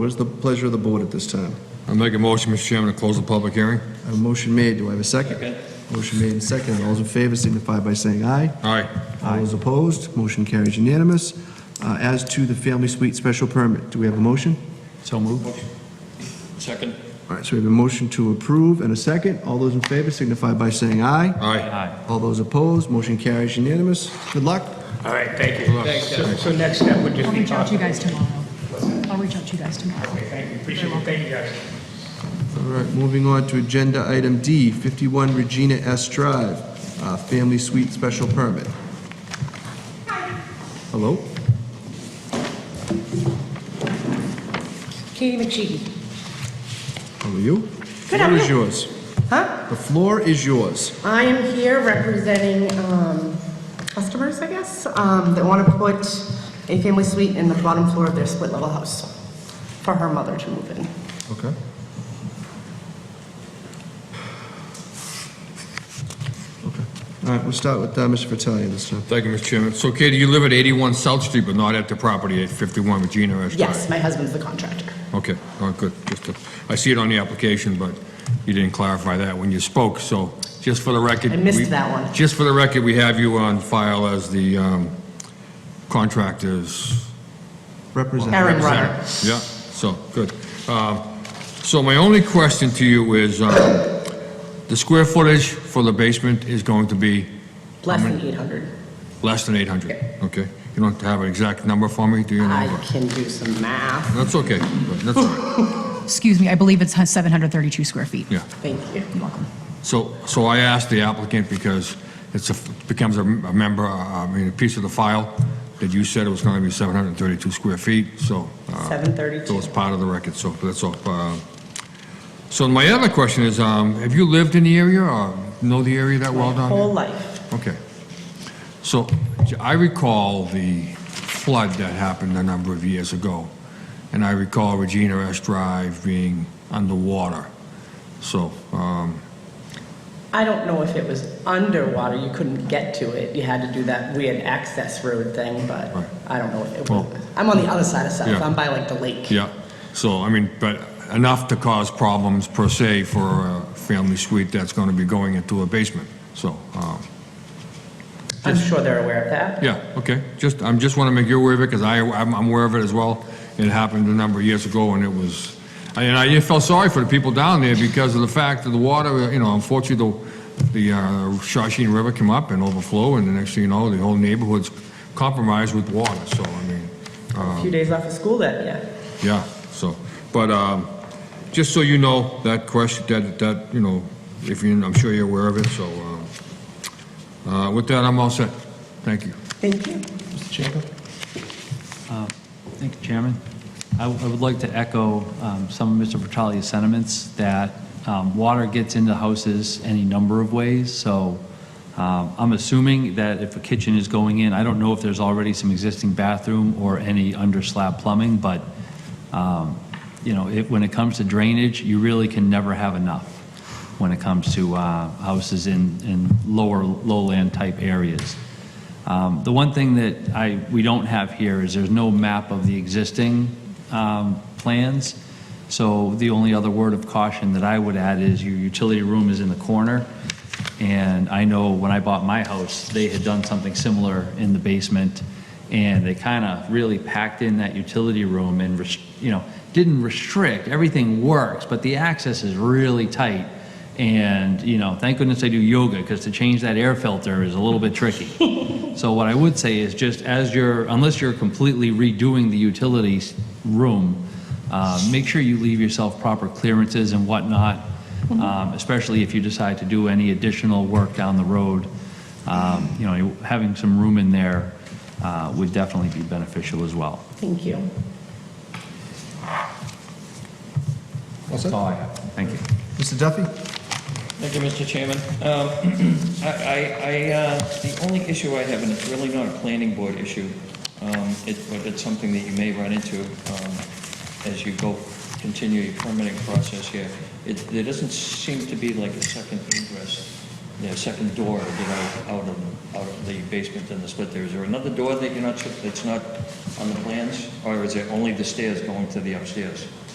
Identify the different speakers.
Speaker 1: What is the pleasure of the board at this time?
Speaker 2: I make a motion, Mr. Chairman, to close the public hearing.
Speaker 1: I have A motion made, do I have a second? Motion made and seconded, all those in favor signify by saying aye.
Speaker 2: Aye.
Speaker 1: All those opposed, motion carries unanimous. Uh, As to the family suite special permit, do we have a motion?
Speaker 3: So moved.
Speaker 4: Second.
Speaker 1: All right, so we have a motion to approve and a second, all those in favor signify by saying aye.
Speaker 2: Aye.
Speaker 1: All those opposed, motion carries unanimous. Good luck.
Speaker 5: All right, thank you. So- So next step would just
Speaker 6: I'll
Speaker 5: be...
Speaker 6: reach out to you guys tomorrow. I'll reach out to you guys tomorrow.
Speaker 5: Okay, Thank you, appreciate it, thank you guys.
Speaker 1: All right, moving on to Agenda Item D, 51 Regina S. Drive, uh, Family Suite Special Permit. Hello?
Speaker 7: Katie McSheedy.
Speaker 1: How are you?
Speaker 7: Good,
Speaker 1: Floor
Speaker 7: how are
Speaker 1: is
Speaker 7: you?
Speaker 1: yours.
Speaker 7: Huh?
Speaker 1: The floor is yours.
Speaker 7: I am here representing um, customers, I guess, um, that want to put a family suite in the bottom floor of their split-level house for her mother to move in.
Speaker 1: Okay. Okay. All right, we'll start with uh, Mr. Vitale this time.
Speaker 2: Thank you, Mr. Chairman. So Katie, you live at 81 South Street, but not at the property at 51 Regina Ave.
Speaker 7: Yes, my husband's the contractor.
Speaker 2: Okay, oh, good. Just, to- I see it on the application, but you didn't clarify that when you spoke, so just for the record.
Speaker 7: I missed
Speaker 2: we-
Speaker 7: that one.
Speaker 2: Just for the record, we have you on file as the um, contractor's
Speaker 1: Represent.
Speaker 7: Aaron Runner.
Speaker 2: Yeah, so, good. Um, So my only question to you is, um, the square footage for the basement is going to be
Speaker 7: Less than 800.
Speaker 2: less than 800? Okay. You don't have an exact number for me, do you know?
Speaker 7: I can do some math.
Speaker 2: That's okay, but that's all right,
Speaker 6: Excuse me, I believe it's 732 square feet.
Speaker 2: yeah.
Speaker 7: Thank you.
Speaker 6: You're welcome.
Speaker 2: So, so I asked the applicant because it's a, becomes a a member, uh, I mean, a piece of the file that you said it was going to be 732 square feet, so. uh, So it's
Speaker 7: 732.
Speaker 2: part of the record, so that's all. Uh, So my other question is, um, have you lived in the area or know the area that well
Speaker 7: My
Speaker 2: down there?
Speaker 7: whole life.
Speaker 2: Okay. So I recall the flood that happened a number of years ago, and I recall Regina S. Drive being underwater. So, um,
Speaker 7: I don't know if it was underwater, you couldn't get to it. You had to do that weird access road thing, but
Speaker 2: Right.
Speaker 7: I don't know if it
Speaker 2: Well-
Speaker 7: was. I'm on the other side of South,
Speaker 2: Yeah.
Speaker 7: I'm by like the lake.
Speaker 2: yeah, so, I mean, but enough to cause problems per se for a family suite that's going to be going into a basement. So, um,
Speaker 7: I'm sure they're aware of that.
Speaker 2: Yeah, okay, just, I'm just want to make you aware of it, because I, I'm I'm aware of it as well. It happened a number of years ago, and it was, and I felt sorry for the people down there because of the fact that the water, you know, unfortunately, the, the uh, Shawshene River came up and overflowed, and the next thing you know, the whole neighborhood's compromised with water, so, I mean,
Speaker 7: A few days off of school that, yeah.
Speaker 2: yeah, so, but, um, just so you know, that question, that, that, you know, if you, I'm sure you're aware of it, so, um, uh, with that, I'm all set. Thank you.
Speaker 7: Thank you.
Speaker 3: Thank you, Chairman. I I would like to echo um, some of Mr. Vitale's sentiments that um, water gets into houses any number of ways, so um, I'm assuming that if a kitchen is going in, I don't know if there's already some existing bathroom or any under-slab plumbing, but, um, you know, it- when it comes to drainage, you really can never have enough when it comes to uh, houses in in lower, lowland-type areas. Um, The one thing that I, we don't have here is there's no map of the existing um, plans, so the only other word of caution that I would add is your utility room is in the corner, and I know when I bought my house, they had done something similar in the basement, and they kind of really packed in that utility room and, res- you know, didn't restrict, everything works, but the access is really tight, and, you know, thank goodness I do yoga, because to change that air filter is a little bit tricky. So what I would say is just as you're, unless you're completely redoing the utilities room, uh, make sure you leave yourself proper clearances and whatnot, um, especially if you decide to do any additional work down the road. Um, You know, you- having some room in there uh, would definitely be beneficial as well.
Speaker 7: Thank you.
Speaker 3: That's all I have. Thank you.
Speaker 1: Mr. Duffy?
Speaker 4: Thank you, Mr. Chairman. Um, I, I- I, uh, the only issue I have, and it's really not a planning board issue, um, it- but it's something that you may run into um, as you go, continue your permitting process here, it- there doesn't seem to be like a second egress
Speaker 3: their second door to get out, out of, out of the basement and the split there. Is there another door that you're not, sure- that's not on the plans? Or is it only the stairs going to the upstairs?